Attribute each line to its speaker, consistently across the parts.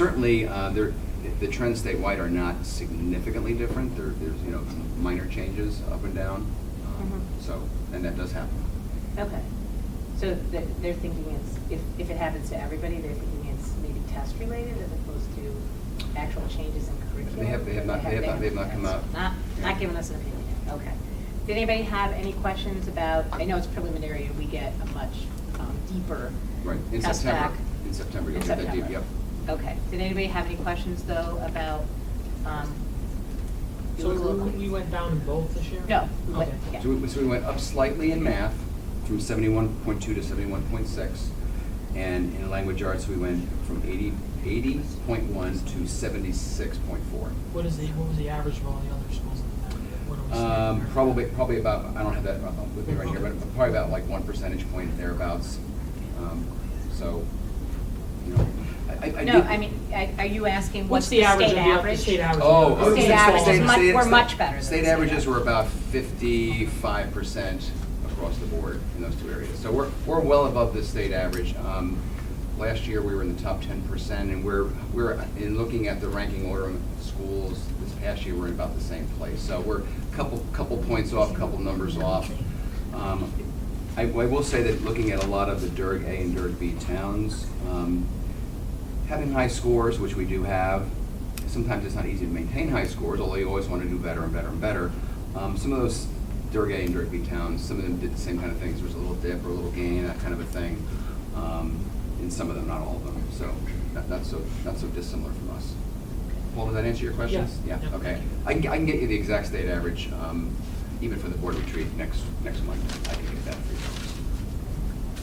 Speaker 1: certainly, uh, there, the trends statewide are not significantly different. There, there's, you know, minor changes up and down. Um,
Speaker 2: Mhm.
Speaker 1: So, and that does happen.
Speaker 2: Okay. So th- they're thinking it's, if, if it happens to everybody, they're thinking it's maybe test related as opposed to actual changes in curriculum?
Speaker 1: They have- they have not- they have not- they have not come out.
Speaker 2: Not, not given us an opinion, yet. okay. Did anybody have any questions about, I know it's preliminary and we get a much um, deeper
Speaker 1: Right, in
Speaker 2: test
Speaker 1: September.
Speaker 2: back
Speaker 1: In September, you'll
Speaker 2: in
Speaker 1: get that deep,
Speaker 2: September.
Speaker 1: yep.
Speaker 2: Okay. Did anybody have any questions though about, um?
Speaker 3: So we-
Speaker 2: local-
Speaker 3: we went down in both this year?
Speaker 2: No, we went-
Speaker 3: Okay.
Speaker 2: yeah.
Speaker 1: So we, so we went up slightly in math, from seventy-one point two to seventy-one point six. And in language arts, we went from 80 80.1 to seventy-six point four.
Speaker 3: What is the, what was the average of all the other schools in the town? What are we
Speaker 1: Um,
Speaker 3: saying?
Speaker 1: probably, probably about, I don't have that with me right here, but probably about like one percentage point thereabouts. Um, So, you know, I, I- I.
Speaker 2: No,
Speaker 1: did-
Speaker 2: I mean, I- are you asking
Speaker 3: What's
Speaker 2: what's
Speaker 3: the average of
Speaker 2: state
Speaker 3: the, the state average?
Speaker 1: Oh.
Speaker 2: The state average is
Speaker 1: state-
Speaker 2: much-
Speaker 1: state-
Speaker 2: we're
Speaker 1: state-
Speaker 2: much better than
Speaker 1: State
Speaker 2: the state
Speaker 1: averages were
Speaker 2: average.
Speaker 1: about fifty-five percent across the board in those two areas. So we're, we're well above the state average. Um, Last year, we were in the top ten percent, and we're, we're, in looking at the ranking order of schools, this past year, we're in about the same place. So we're a couple, couple points off, couple numbers off. Um, I, I will say that looking at a lot of the DERG A and DERG B towns, um, having high scores, which we do have, sometimes it's not easy to maintain high scores, although you always want to do better and better and better. Um, some of those Durga and Durga towns, some of them did the same kind of things, there was a little dip or a little gain, that kind of a thing. Um, in some of them, not all of them, so not, not so, not so dissimilar from us. Paul, does that answer your questions?
Speaker 3: Yeah. Yeah,
Speaker 1: okay.
Speaker 3: thank you.
Speaker 1: I can, I can get you the exact state average, um, even for the board retreat next, next month, I can get that for you.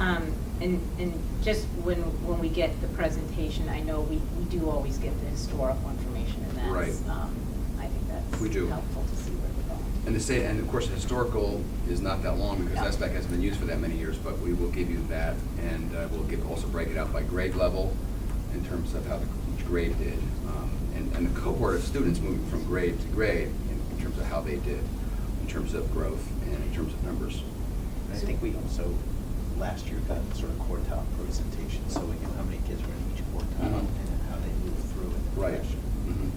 Speaker 2: Um, And, and just when, when we get the presentation, I know we, we do always get the historical information and that's,
Speaker 1: Right.
Speaker 2: um, I think that's
Speaker 1: We do.
Speaker 2: helpful to see where we're going.
Speaker 1: And the state, and of course, historical is not that long because
Speaker 2: No.
Speaker 1: SBAC hasn't been used for that many years, but we will give you that. And uh, we'll give, also break it out by grade level in terms of how the- each grade did. um, And, and the cohort of students moving from grade to grade in- in terms of how they did, in terms of growth and in terms of numbers.
Speaker 4: I think we also, last year, got sort of quartile presentation, so we knew how many kids were in each quartile
Speaker 5: Mm-hmm.
Speaker 1: Mhm.
Speaker 4: and then how they moved through in the
Speaker 1: Right.
Speaker 4: progression.
Speaker 1: Mhm.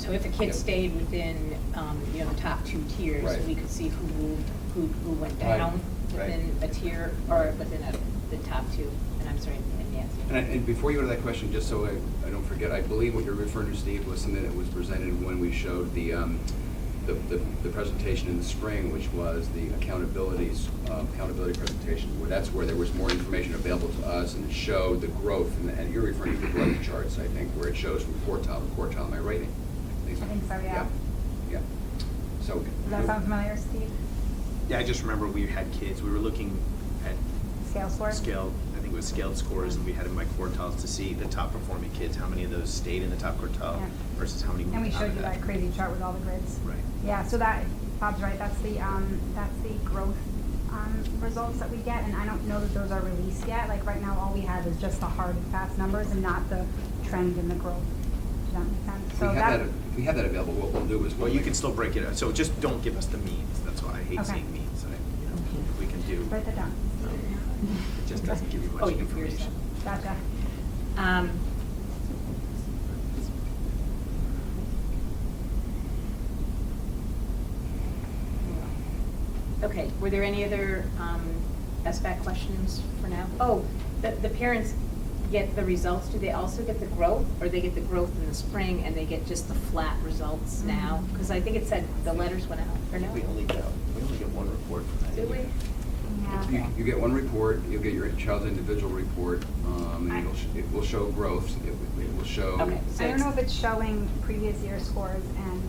Speaker 2: So if a kid
Speaker 1: Yep.
Speaker 2: stayed within, um, you know, the top two tiers,
Speaker 1: Right.
Speaker 2: we could see who moved, who, who went
Speaker 1: Right.
Speaker 2: down
Speaker 1: Right.
Speaker 2: within a tier or within a, the top two. And I'm sorry, and Nancy.
Speaker 1: And, I- and before you go to that question, just so I, I don't forget, I believe what you're referring to, Steve, was something that was presented when we showed the, um, the, the, the presentation in the spring, which was the accountabilities, uh, accountability presentation, where that's where there was more information available to us and it showed the growth, and, and you're referring to the growth charts, I think, where it shows from quartile to quartile, am I right? I
Speaker 6: I think so, yeah.
Speaker 1: Yeah, so.
Speaker 6: Does that sound familiar, Steve?
Speaker 5: Yeah, I just remember we had kids, we were looking at
Speaker 6: Scale score?
Speaker 5: scaled, I think it was scaled scores, and we had them by quartiles to see the top performing kids, how many of those stayed in the top quartile
Speaker 6: Yeah.
Speaker 5: versus how many
Speaker 6: And we
Speaker 5: moved out
Speaker 6: showed
Speaker 5: of
Speaker 6: you that crazy chart with all the grids.
Speaker 5: Right.
Speaker 6: Yeah, so that, Bob's right, that's the, um, that's the growth, um, results that we get, and I don't know that those are released yet. Like, right now, all we have is just the hard, and fast numbers and not the trend and the growth. Does that make sense?
Speaker 1: If we
Speaker 6: So
Speaker 1: had that, if we had that available, what we'll do is.
Speaker 5: Well,
Speaker 1: we'll
Speaker 5: you
Speaker 1: make-
Speaker 5: can still break it out, so just don't give us the means, that's why I hate
Speaker 6: Okay.
Speaker 5: seeing means, I, you know, if we can do,
Speaker 6: Write that down.
Speaker 5: it just doesn't give you
Speaker 2: Oh,
Speaker 5: much
Speaker 2: you- you're
Speaker 5: information.
Speaker 2: set.
Speaker 6: Gotcha.
Speaker 2: Um, Okay, were there any other um, SBAC questions for now? Oh, the, the parents get the results, do they also get the growth? Or they get the growth in the spring and they get just the flat results now? Because I think it said the letters went out, or no?
Speaker 4: Mm-hmm. We only got, we only got one report from that.
Speaker 2: Did we?
Speaker 4: year.
Speaker 1: You,
Speaker 6: Yeah.
Speaker 1: you get one report, you'll get your child's individual report, um, and it'll, sh- it will show growth, it will- it will show.
Speaker 2: Okay. So
Speaker 6: I don't know
Speaker 2: it's-
Speaker 6: if it's showing previous year scores and,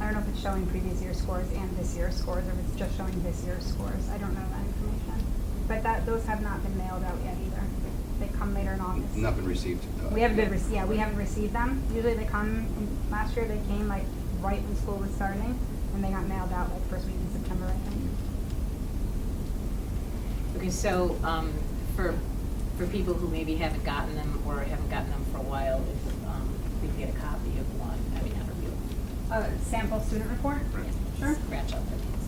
Speaker 6: I don't know if it's showing previous year scores and this year's scores, or if it's just showing this year's scores. I don't know that information. But that, those have not been mailed out yet either. They come later in August.
Speaker 1: Not been received. uh,
Speaker 6: We haven't been, rece- yeah, we haven't received them. Usually they come, and last year they came like right when school was starting, and they got mailed out like first week in September, I think.
Speaker 2: Okay, so um, for, for people who maybe haven't gotten them or haven't gotten them for a while, if um, we can get a copy of one, I mean, not a real
Speaker 6: A Uh, sample student report?
Speaker 5: Right.
Speaker 6: Sure.
Speaker 2: scratch out the names. Um,